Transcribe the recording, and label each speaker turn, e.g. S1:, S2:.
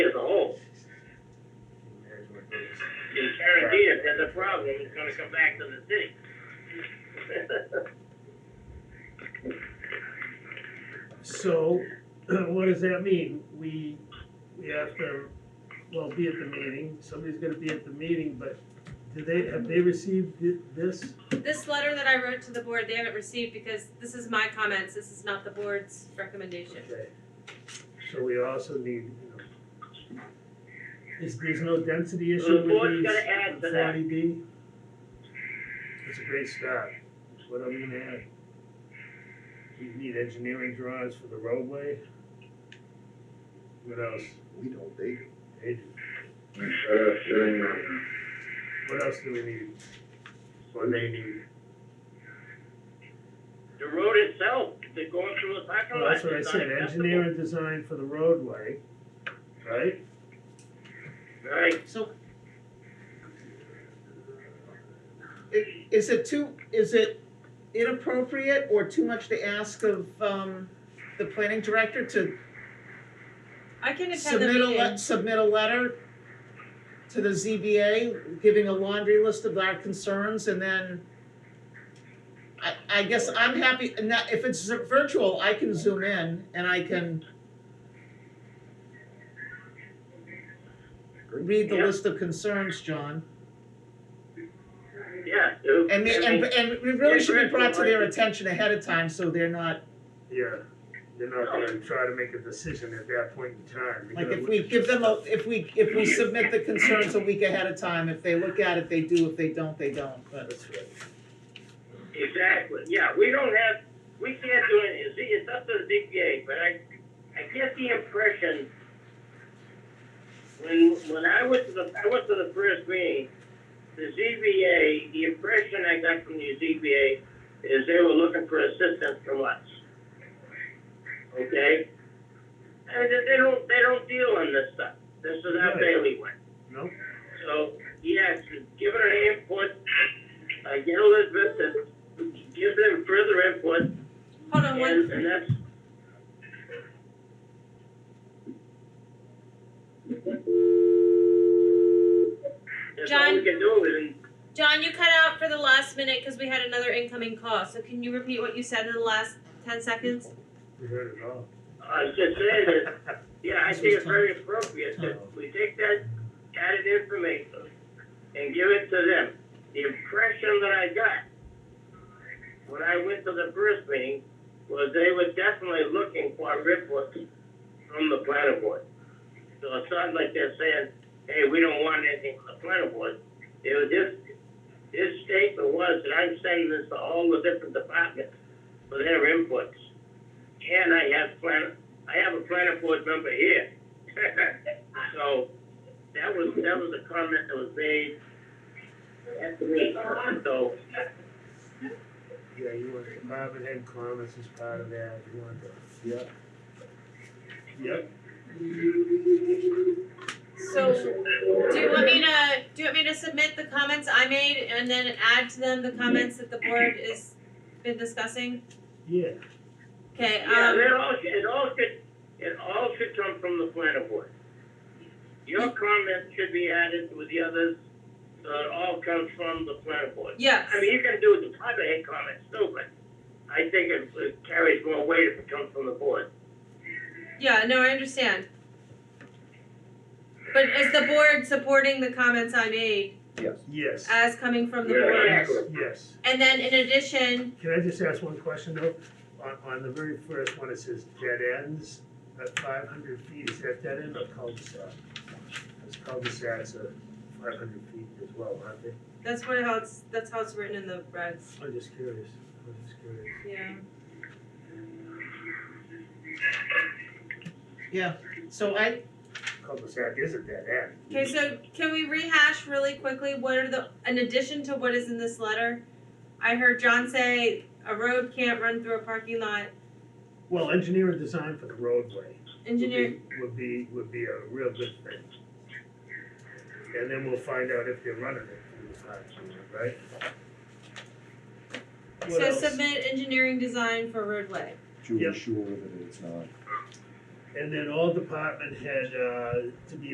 S1: Because guaranteed, if there's a problem, it's gonna come back to the city.
S2: So, what does that mean? We, we have to, well, be at the meeting, somebody's gonna be at the meeting, but do they, have they received thi- this?
S3: This letter that I wrote to the board, they haven't received because this is my comments, this is not the board's recommendation.
S2: Okay. So we also need, you know, is, there's no density issue with
S1: The board's
S2: these
S1: gonna add to that.
S2: forty B? It's a great start, what I'm gonna add. We need engineering drawings for the roadway. What else?
S4: We don't, they.
S2: Hey, What else do we need? Or they need?
S1: The road itself, they're going through a parking
S2: Well,
S1: lot.
S2: that's what I
S1: it's
S2: said,
S1: unacceptable.
S2: engineer and design for the roadway, right?
S1: Right,
S5: So. I- Is it too, is it inappropriate or too much to ask of, um, the planning director to
S3: I can attend the
S5: submit a, le-
S3: meeting,
S5: submit a letter to the ZBA, giving a laundry list of our concerns and then I, I guess I'm happy, and that, if it's virtual, I can zoom in and I can read the
S1: Yeah.
S5: list of concerns, John.
S1: yeah. so-
S5: And
S1: I
S5: they, and,
S1: mean,
S5: and it really should be brought to their
S1: Yeah.
S5: attention ahead of time, so they're not,
S2: Yeah, they're not gonna try to make a decision at that point in time. They're
S5: like,
S2: gonna
S5: if
S2: look
S5: we
S2: at
S5: give them
S2: stuff.
S5: a, if we, if we submit the concerns a week ahead of time, if they look at it, they do, if they don't, they don't, but.
S2: That's right.
S1: Exactly, yeah, we don't have, we can't do it, it's, it's up to the DPA, but I, I get the impression when, when I went to the, I went to the first meeting, the ZBA, the impression I got from the ZBA is they were looking for assistance from us. Okay? And they, they don't, they don't deal in this stuff, this is our
S2: Right.
S1: bailiwick.
S2: No?
S1: So, yes, give it an input, uh, get Elizabeth to give them further input,
S3: hold on,
S1: and,
S3: one,
S1: and that's, that's all we
S3: John?
S1: can do, and
S3: John, you cut out for the last minute, cause we had another incoming call, so can you repeat what you said in the last ten seconds?
S2: We heard it all.
S1: I was uh, just saying that Yeah, I think it's very appropriate that we take that added information and give it to them. The impression that I got when I went to the first meeting was they were definitely looking for reports from the planning board. So it's not like they're saying, hey, we don't want anything from the planning board. It was just, this statement was that I'm sending this to all the different departments for their inputs. And I have plan, I have a planning board member here. So, that was, that was a comment that was made at the meeting, so,
S2: Yeah, you want department head comments as part of that, you want the.
S4: Yeah.
S2: Yep.
S3: So, do you want me to, do you want me to submit the comments I made and then add to them the comments that the board is been discussing?
S2: Yeah,
S3: Okay,
S1: yeah,
S3: um,
S1: it all, it all should, it all should come from the planning board. Your comments should be added with the others, so it all comes from the planning board.
S3: yes,
S1: I mean, you can do the private head comments too, but I think it it carries more weight if it comes from the board.
S3: yeah, no, I understand. But is the board supporting the comments I made
S4: Yes.
S2: yes,
S3: as coming from the
S1: Yeah.
S3: board?
S2: yes.
S3: And then in addition,
S2: Can I just ask one question though? On, on the very first one, it says dead ends at five hundred feet, is that dead end or cul-de-sac? Those cul-de-sacs are five hundred feet as well, aren't they?
S3: that's what how it's, that's how it's written in the regs,
S2: I'm just curious, I'm just curious.
S3: yeah.
S5: So I,
S2: Cul-de-sac is a dead end.
S3: Okay, so can we rehash really quickly, what are the, in addition to what is in this letter? I heard John say a road can't run through a parking lot,
S2: Well, engineer and design for the roadway. would be-
S3: engineer,
S2: Would be, would be a real good thing. And then we'll find out if they're running it through the parking lot, right? What
S3: so
S2: else?
S3: submit engineering design for roadway.
S4: To
S2: Yep.
S4: ensure that it's not.
S2: And then all department head, uh, to be